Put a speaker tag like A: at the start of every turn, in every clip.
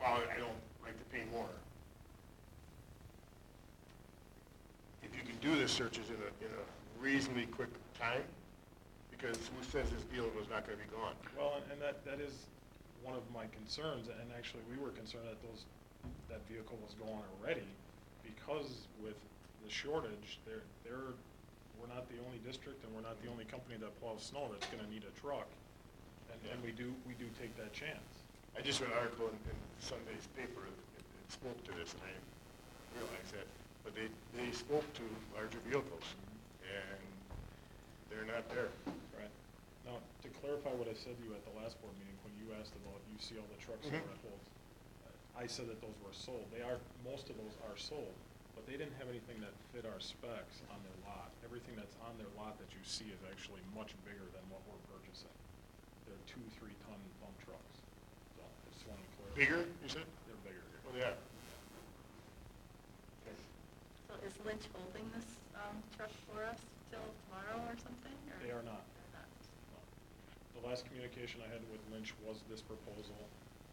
A: now I don't like to pay more. If you can do the searches in a, in a reasonably quick time, because who says this deal was not gonna be gone?
B: Well, and- and that, that is one of my concerns, and actually, we were concerned that those, that vehicle was gone already, because with the shortage, there, there, we're not the only district, and we're not the only company that plows snow that's gonna need a truck, and, and we do, we do take that chance.
A: I just read an article in, in Sunday's paper that that spoke to this, and I didn't realize that, but they, they spoke to larger vehicles, and they're not there.
B: Right. Now, to clarify what I said to you at the last board meeting, when you asked about UCL, the trucks that
A: Mhm.
B: were at Olds, I said that those were sold. They are, most of those are sold, but they didn't have anything that fit our specs on their lot. Everything that's on their lot that you see is actually much bigger than what we're purchasing. They're two, three-ton dump trucks. So I just wanted to clarify.
A: Bigger, you said?
B: They're bigger.
A: Oh, they are.
C: So is Lynch holding this um, truck for us till tomorrow or something? or-
B: They are not.
C: They're not.
B: Um, The last communication I had with Lynch was this proposal.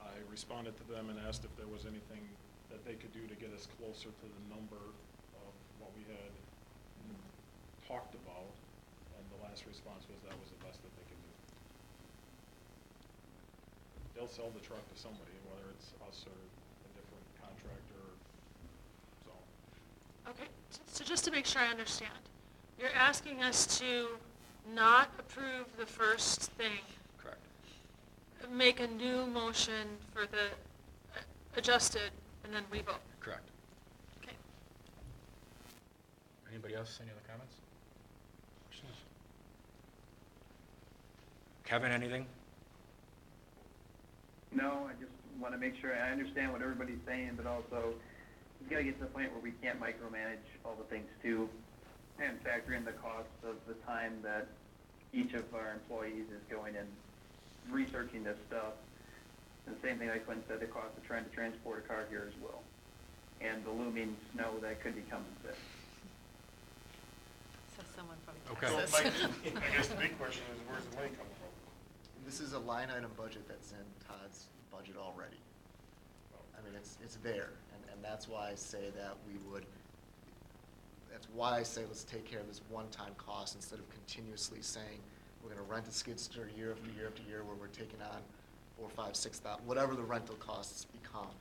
B: I responded to them and asked if there was anything that they could do to get us closer to the number of what we had talked about, and the last response was that was the best that they could do. They'll sell the truck to somebody, whether it's us or a different contractor, so.
D: Okay, so just to make sure I understand, you're asking us to not approve the first thing,
E: Correct.
D: make a new motion for the uh, adjusted, and then we vote.
E: Correct.
D: Okay.
E: Anybody else, any other comments? Kevin, anything?
F: No, I just want to make sure, I understand what everybody's saying, but also, we gotta get to the point where we can't micromanage all the things too, and factor in the cost of the time that each of our employees is going and researching this stuff. And the same thing like Quinn said, the cost of trying to transport a car here as well, and the looming snow that could be coming soon.
C: So someone from
E: Okay.
A: So,
C: Texas.
A: Mike, I guess the big question is, where's the money coming from?
G: And This is a line item budget that's in Todd's budget already. I mean, it's, it's there, and, and that's why I say that we would, that's why I say let's take care of this one-time cost instead of continuously saying, we're gonna rent a skid steer year after year after year where we're taking on four, five, six thou, whatever the rental costs become.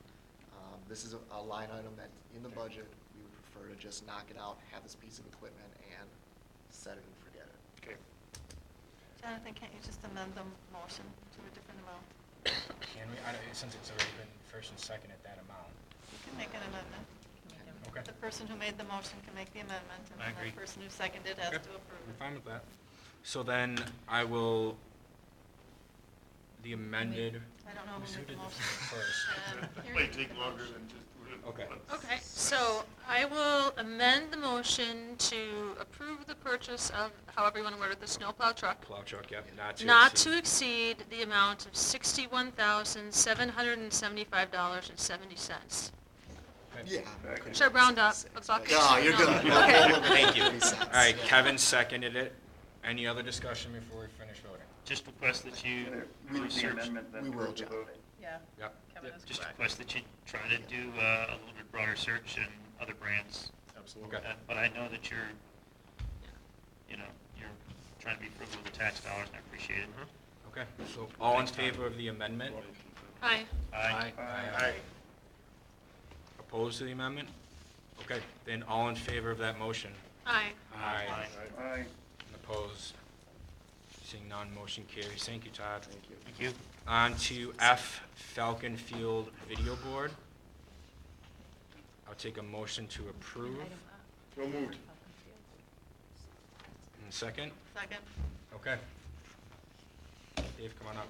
G: Um, This is a, a line item that's in the budget, we would prefer to just knock it out, have this piece of equipment, and set it and forget it.
A: Okay.
C: Jonathan, can't you just amend the motion to a different amount?
E: Can we, I don't- since it's already been first and second at that amount.
C: You can make an amendment.
E: Okay.
C: The person who made the motion can make the amendment, and
E: I
C: then
E: agree.
C: the person who seconded has to approve
E: I'm
C: it.
E: fine with that. So then I will, the amended.
C: I don't know who
E: Who's-
C: made the
E: did
C: motion.
E: First.
C: Um,
A: It
C: you're
A: might
C: making
A: take
C: the
A: longer
C: motion.
A: than just doing it
E: Okay.
A: once.
D: Okay, so uh, I will amend the motion to approve the purchase of, however you want to word it, the snowplow truck,
E: Plow truck, yep, not to.
D: not to exceed the amount of sixty-one thousand, seven hundred and seventy-five dollars and seventy cents.
E: Okay.
G: Yeah.
F: Second.
D: Should I round up a buck?
G: No, you're good.
D: Okay.
E: Thank you.
G: Makes sense.
E: All right, Kevin seconded it. Any other discussion before we finish voting?
H: Just request that you
F: Move the
H: research,
F: amendment that
G: we will,
F: approves the
G: John.
F: voting.
I: Yeah,
E: Yep.
I: Kevin is
H: just
I: correct.
H: request that you try to do uh, a little bit broader search in other brands.
B: Absolutely.
E: Okay.
H: Uh, But I know that you're, you know, you're trying to be frugal with the tax dollars, and I appreciate it.
E: Okay, so all in favor of the amendment?
D: Aye.
E: Mm-hmm.
H: Aye.
A: Aye.
E: Opposed to the amendment? Okay, then all in favor of that motion?
D: Aye.
E: Aye.
F: Aye.
E: And Opposed? Seeing none, motion carries. Thank you, Todd. Thank you.
H: Thank you.
E: On to F Falcon Field Video Board. I'll take a motion to approve.
A: So moved.
E: And a second?
C: Second.
E: Okay. Dave, come on up.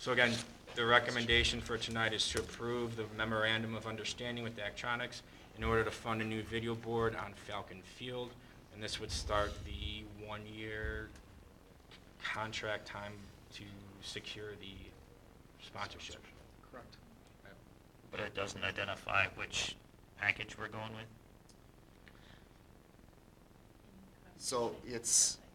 E: So again, the recommendation for tonight is to approve the memorandum of understanding with Daktronics in order to fund a new video board on Falcon Field, and this would start the one-year contract time to secure the sponsorship.
B: Correct.
H: But it doesn't identify which package we're going with?
G: So it's,